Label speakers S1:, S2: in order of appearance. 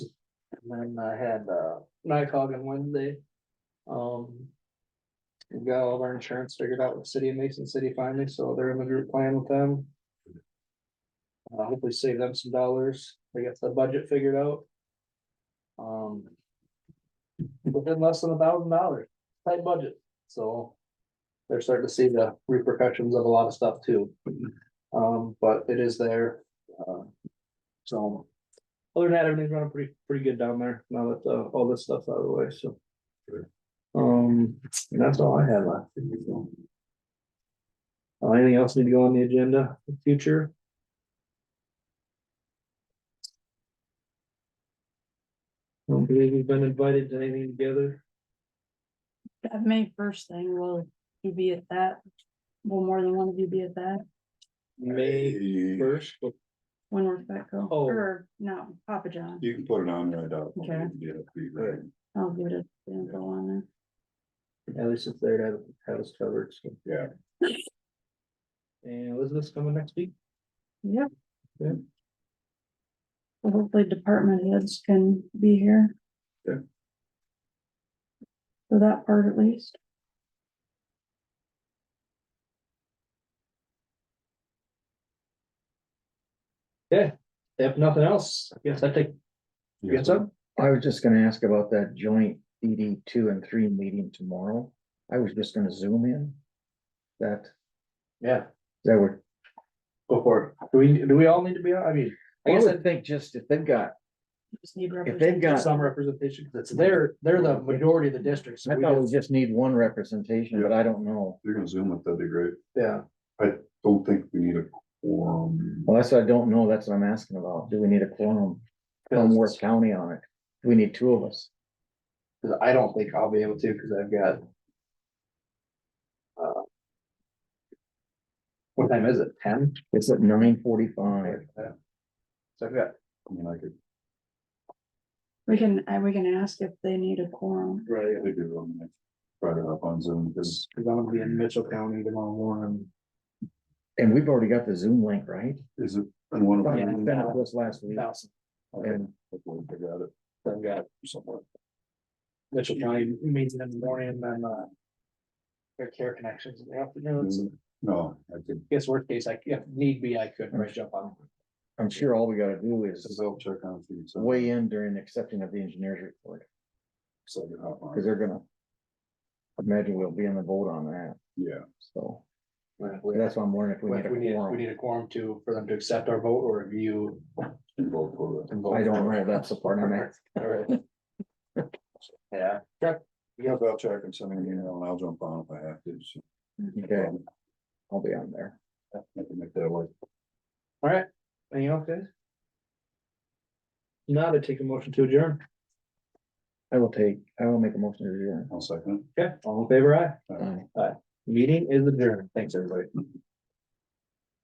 S1: Then I had, uh, NICOG on Wednesday. Um. we Got all of our insurance figured out with the City of Mason City finally, so they're in the group plan with them. Uh, hopefully save them some dollars. They got the budget figured out. Um. Within less than a thousand dollars, tight budget, so. They're starting to see the repercussions of a lot of stuff too. Um, but it is there, uh, so. Other than that, everything's running pretty, pretty good down there now that, uh, all this stuff's out of the way, so.
S2: Sure.
S1: Um, and that's all I have left. Uh, anything else need to go on the agenda in future? Don't believe we've been invited to anything together.
S3: That May first thing, will you be at that? Will more than one of you be at that?
S1: May
S2: Hey,
S1: first,
S3: When we're back home?
S1: Oh.
S3: Or, no, Papa John,
S2: You can put it on right up.
S3: Okay.
S2: Yeah, be great.
S3: I'll give it a sample on it.
S1: at least it's there to have, have us covered, so.
S2: Yeah.
S1: And Elizabeth's coming next week.
S3: Yep.
S1: Yeah.
S3: Well, Hopefully department heads can be here.
S2: Yeah.
S3: For that part at least.
S1: If nothing else, I guess I take, you got some?
S4: I was just gonna ask about that joint DD two and three meeting tomorrow. I was just gonna zoom in. That,
S1: Yeah.
S4: that would,
S1: Go for it. Do we, do we all need to be on? I mean, I
S4: I
S1: guess
S4: would think just if they've got,
S3: Just need
S4: if they've
S1: that's
S4: got,
S1: some representation, because it's they're, they're the majority of the districts. so
S4: I
S1: we
S4: thought we
S1: just-
S4: just need one representation, but I don't know.
S2: You're gonna zoom it, that'd be great.
S1: Yeah,
S2: Don't think we need a quorum.
S4: Well, that's what I don't know. That's what I'm asking about. Do we need a quorum from Worth
S1: because
S4: County on it? Do we need two of us?
S1: 'cause I don't think I'll be able to, because I've got. uh, What time is it? Ten?
S4: It's at nine forty-five.
S1: Yeah. So I've got.
S2: I mean, I could,
S3: We can, I, we can ask if they need a quorum.
S1: Right.
S2: I could do it on the next, write it up on Zoom, because
S1: Because I'm gonna be in Mitchell County tomorrow morning.
S4: And we've already got the Zoom link, right?
S2: is it, and one of
S4: Thought you
S2: them.
S4: sent it to us last week.
S1: Thousand.
S2: Okay, hopefully I got it
S1: I've got
S2: somewhere.
S1: Mitchell County meeting in the morning and then, uh. Their care connections in the afternoon,
S4: Mm-hmm.
S1: so
S2: No, I could,
S1: I guess worst case, I, if need be, I could reach up on.
S4: I'm sure all we gotta do is
S2: says I'll check on it. so-
S4: weigh in during accepting of the engineer's report,
S2: So I can hop on.
S4: because they're gonna. Imagine we'll be in the vote on that,
S2: Yeah,
S4: so
S1: We
S4: that's why I'm wondering if we
S1: If we
S4: need a
S1: need, we
S4: quorum.
S1: need a quorum to, for them to accept our vote or review.
S2: involved for it.
S1: and vote.
S4: I don't know, that's the part I'm at.
S1: Alright. Yeah,
S2: Yeah, but I'll check and send me an email and I'll jump on if I have to. so.
S4: Okay, I'll be on there.
S2: I can make that work.
S1: alright, anything else, guys? Now to take a motion to adjourn,
S4: I will take, I will make a motion to adjourn.
S2: I'll second.
S1: okay, all in favor, aye,
S2: it.
S4: Aye.
S1: meeting is adjourned, thanks, everybody.